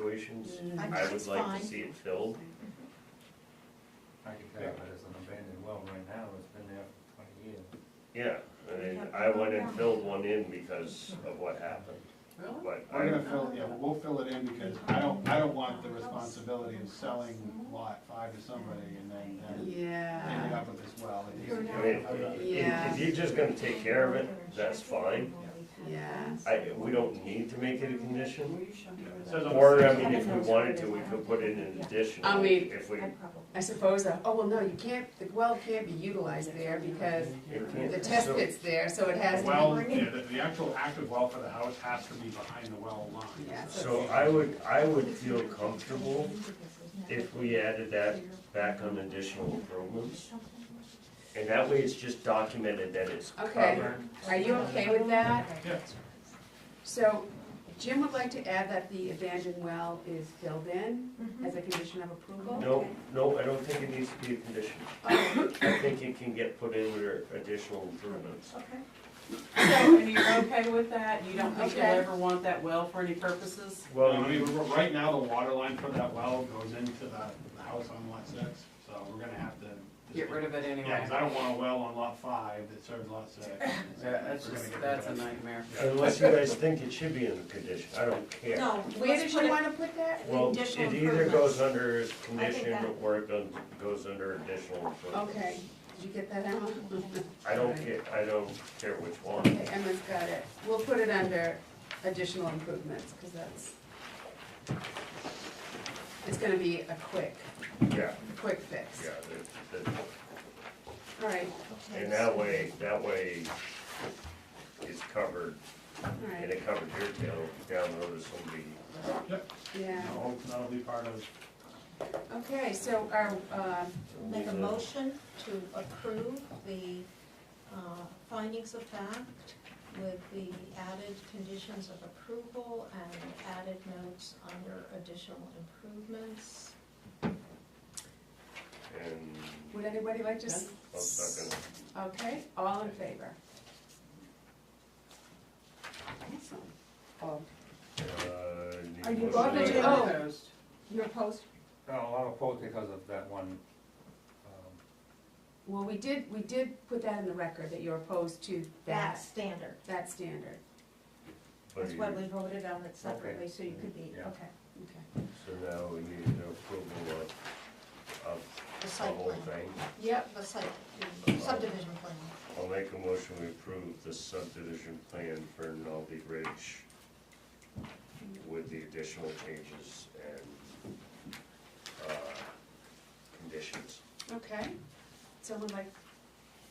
situations, Mm. I I think would it's like fine. to see it filled. I can tell you, but it's an abandoned well right now, it's been there for twenty years. Yeah, I mean, I went and filled one in because of what happened, Really? but We're I, gonna fill, yeah, we'll fill it in because I don't, I don't want the responsibility of selling lot five to somebody and then them ending Yeah. up with this well. It needs to I mean, go- if if you're just gonna take care of it, that's fine. Yeah. I, we don't need to make it a condition. Says on the Or, I side. mean, if we wanted to, we could put in an additional, I mean- if we, I suppose, uh, oh, well, no, you can't, the well can't be utilized there because it can't. the test pit's there, so it has The to be. Well, yeah, the, the actual active well for the house has to be behind the well line. Yeah, So I would, I would feel comfortable if we added that back on additional improvements. And that way it's just documented that it's Okay. covered. Are you okay with that? Yeah. So Jim would like to add that the abandoned well is filled in as a condition of approval? No, no, I don't think it needs to be a condition. Oh, I think it can get put in under additional improvements. So, and you're okay with that? You don't think you'll Okay. ever want that well for any purposes? Well, Well, I mean, you- we're- right now, the water line for that well goes into the, the house on lot six, so we're gonna have to. Get rid of it Yeah, anyway. cause I don't want a well on lot five that serves lot six. Yeah, That's just, that's a nightmare. unless you guys think it should be in the condition, I don't care. No, Where let's did put you it, wanna put that? Well, it Additional either goes improvements. under I condition think or it goes- goes under additional improvements. Okay, did you get that out? I don't care, I don't care which one. Okay, Emma's got it. We'll put it under additional improvements, because that's, it's gonna be a quick, Yeah, quick fix. yeah, the, the All right, And that way, that way it's covered, all and right, it covers your tail down the road if somebody, yeah. No, that'll be part of. Okay, so our, um, make a motion to approve the uh, findings of fact with the added conditions of approval and added notes under additional improvements. and would anybody like to? s- I'm not gonna, Okay, all in favor? Awesome. Oh, uh, Are need you a going motion. to- Oh. Opposed? You're opposed? No, I'll oppose because of that one, um, Well, we did, we did put that in the record, that you're opposed to That that, standard, that standard. But that's you- why we voted on it separately, so you could be, Yeah. okay, Okay. So now we need an approval of, of the the site whole plan. thing. Yep. The site, subdivision plan. I'll make a motion we approve the subdivision plan for Nolde Ridge with the additional changes and, uh, conditions. Okay, someone like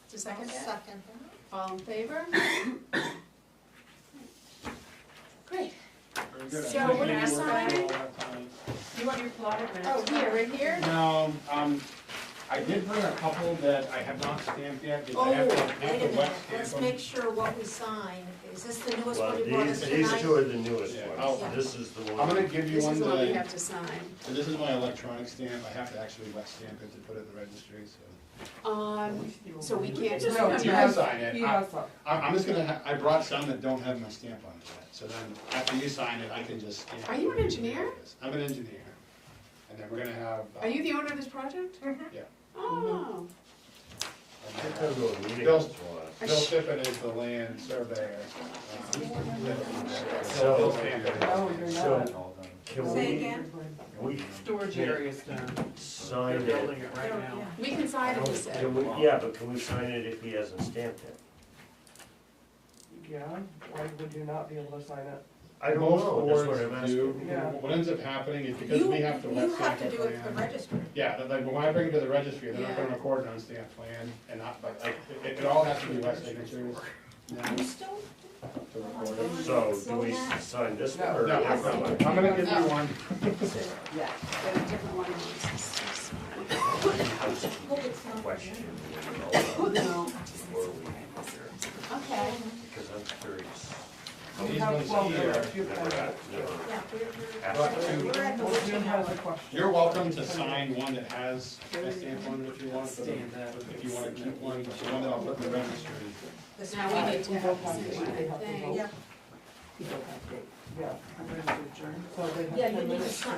to second that? Second. All in favor? Great. Very good. I So we're think maybe gonna work sign- all that time. You want your plotter minutes? Oh, here, right here? No, um, I did bring a couple that I have not stamped yet, because I have to Oh, wait have the a minute, wet stamp let's on- make sure what we sign, is this the newest Well, one you brought us these, these tonight? two are the newest Yeah. ones, Oh. this is the one. I'm gonna give you This one is the that, one we I- have to sign. so this is my electronic stamp, I have to actually wet stamp it to put it in the registry, so. Um, so we can't. just- No, you can sign it, You I, have some. I'm I'm just gonna, ha- I brought some that don't have my stamp on it yet, so then, after you sign it, I can just stamp. it. Are you an engineer? I'm an engineer, and then we're gonna have. uh, Are you the owner of this project? Yeah. Oh, I'm It gonna have- doesn't really mean Bill- it's one. I Bill sh- Tippett is the land surveyor. um, So- Bill Stamp it. Oh, you're So- not. all done. Can Say we, again? we Storage area's done. They're sign it? building it right now. we can sign Oh, it, he said. Can we, yeah, but can we sign it if he hasn't stamped it? Yeah, why would you not be able to sign it? I don't Most know, that's what boards I'm do. asking. Yeah. What ends up happening is because You- we have to wet You have stamp our to do it for plan. registry. Yeah, that- like, when I bring it to the registry, they're not Yeah. gonna record it on stamp plan, and not, but, like, it, it all has to be wet signatures now You still, to record it. So, do we s- sign this one or? No, I'm that one? gonna give you one, Yeah. But a different one. is- hope it's not. Question. Oh, No. before we get there, Okay, Because I'm curious. these have ones twelve here, minutes, you Never can- got- never Yeah, we're, asked. But we're, we're at the Well, Jim witching has a hour. question. you're welcome to sign one that has a stamp on it if you want, but Stand up. if you wanna keep one, but the one that I'll put in the registry. This now we one. need to have the same one, I think. Yeah, yeah. I'm ready to adjourn. So they have Yeah, ten you need to minutes. sign.